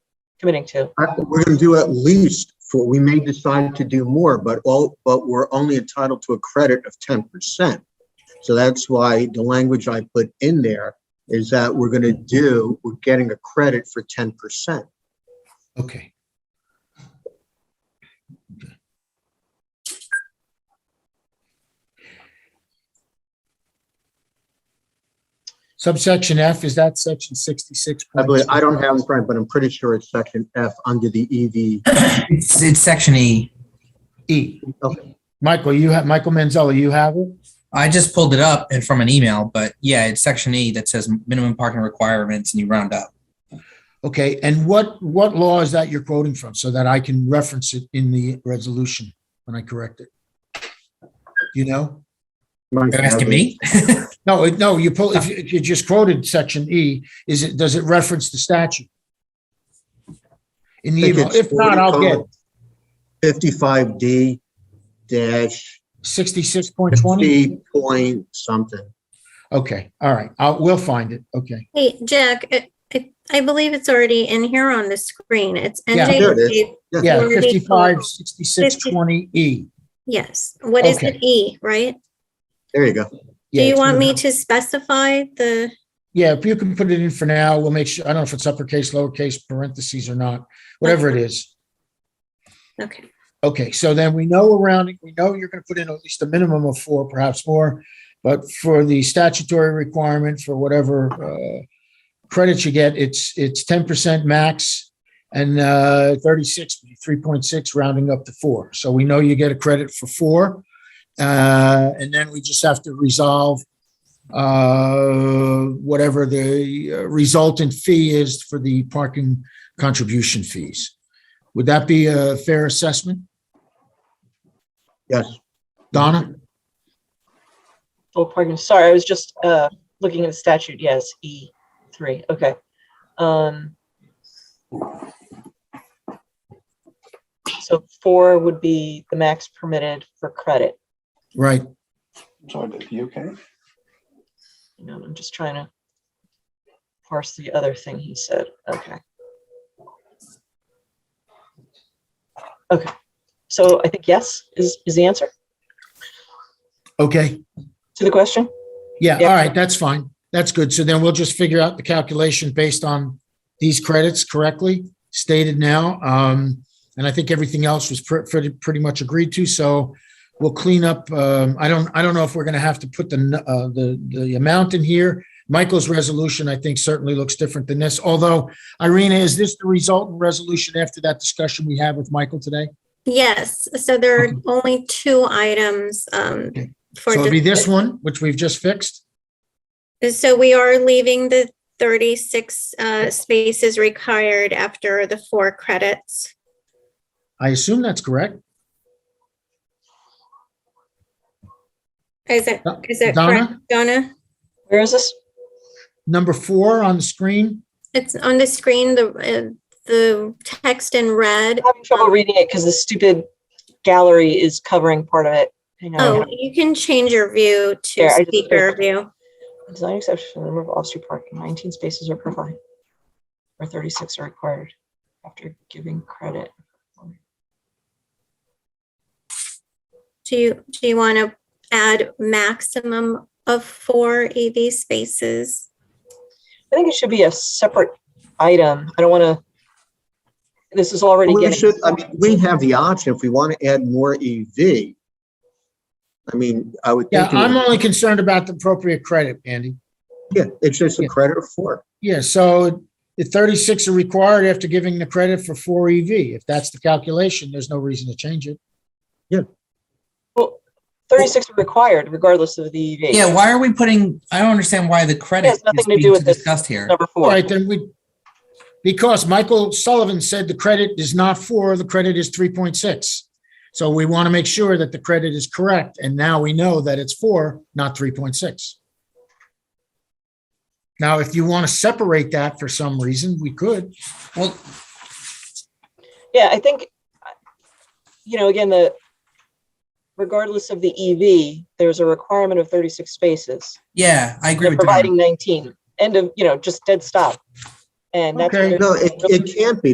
committing to? Uh, We're going to do at least four. We may decide to do more, but all, but we're only entitled to a credit of ten percent. So that's why the language I put in there is that we're going to do, we're getting a credit for ten percent. Okay. Subsection F, is that section sixty-six? I believe, I don't have it in front, but I'm pretty sure it's section F under the E EV. It's, it's section E. E. Okay. Michael, you have, Michael Manzella, you have it? I just pulled it up and from an email, but yeah, it's section E that says minimum parking requirements and you round up. Okay, and what, what law is that you're quoting from so that I can reference it in the resolution when I correct it? Do You know? You're asking me? No, it- no, you pull, if you- if you just quoted section E, is it, does it reference the statute? In the email, if not, I'll get Fifty-five D dash sixty-six point twenty? fifty point something. Okay, all right, I'll, we'll find it, okay. Hey, Jack, it- it- I believe it's already in here on the screen. It's Yeah. There it is. NJSA. Yeah, Forty. fifty-five, sixty-six, twenty E, Yes, what is Okay. it? E, right? There you go. Do Yeah, you it's want in me there. to specify the, Yeah, if you can put it in for now, we'll make sure, I don't know if it's uppercase, lowercase, parentheses or not, whatever it is. okay, Okay, so then we know around, we know you're gonna put in at least a minimum of four, perhaps more. But for the statutory requirement for whatever uh credits you get, it's it's ten percent max. And uh thirty-six, three point six rounding up to four. So we know you get a credit for four. Uh, and then we just have to resolve uh whatever the uh, resultant fee is for the parking contribution fees. Would that be a fair assessment? Yes. Donna? Oh, pardon, sorry, I was just, uh, looking at the statute, yes, E three, okay. Um. So four would be the max permitted for credit, Right. Sorry, Dave, you okay? you know, I'm just trying to parse the other thing he said, okay. Okay, so I think yes is, is the answer Okay. to the question? Yeah, Yeah. all right, that's fine. That's good. So then we'll just figure out the calculation based on these credits correctly stated now. Um, and I think everything else was pre- pretty, pretty much agreed to. So we'll clean up, um, I don't, I don't know if we're going to have to put the, n- uh, the, the amount in here. Michael's resolution, I think certainly looks different than this. Although Irina, is this the resultant resolution after that discussion we had with Michael today? yes, so there are only two items. um, Okay. for So it'll be this dis- one, which we've just fixed. So we are leaving the 36 uh, spaces required after the four credits. I assume that's correct. Is it, Do- is that correct, Donna, Donna? Where is this? number four on the screen. It's on the screen, the, uh, the text in red I'm having trouble reading it because the stupid gallery is covering part of it. Hang Oh, on. you can change your view to There, I just speaker view. Design exception for the number of off-street parking, nineteen spaces are provided. Or thirty-six are required after giving credit. Do you, do you want to add maximum of four EV spaces? I think it should be a separate item. I don't want to. This is already We getting. should, I mean, we have the option if we want to add more EV. I mean, I would Yeah, think. it I'm would- only concerned about the appropriate credit, Andy. Yeah, it's just a credit of four. Yeah, so the 36 are required after giving the credit for four EV. If that's the calculation, there's no reason to change it. Well, Thirty-six are required regardless of the EV. Yeah, why are we putting, I don't understand why the credit has nothing is to do being with this. discussed here. Number All four. right, then we, because Michael Sullivan said the credit is not four, the credit is 3.6. So we want to make sure that the credit is correct, and now we know that it's four, not 3.6. Now, if you want to separate that for some reason, we could. Well, Yeah, I think, I- you know, again, the, regardless of the EV, there's a requirement of thirty-six spaces. yeah, I agree They're with Donna. providing nineteen, end of, you know, just dead stop. And that's. what Okay. they're- No, it, it can't be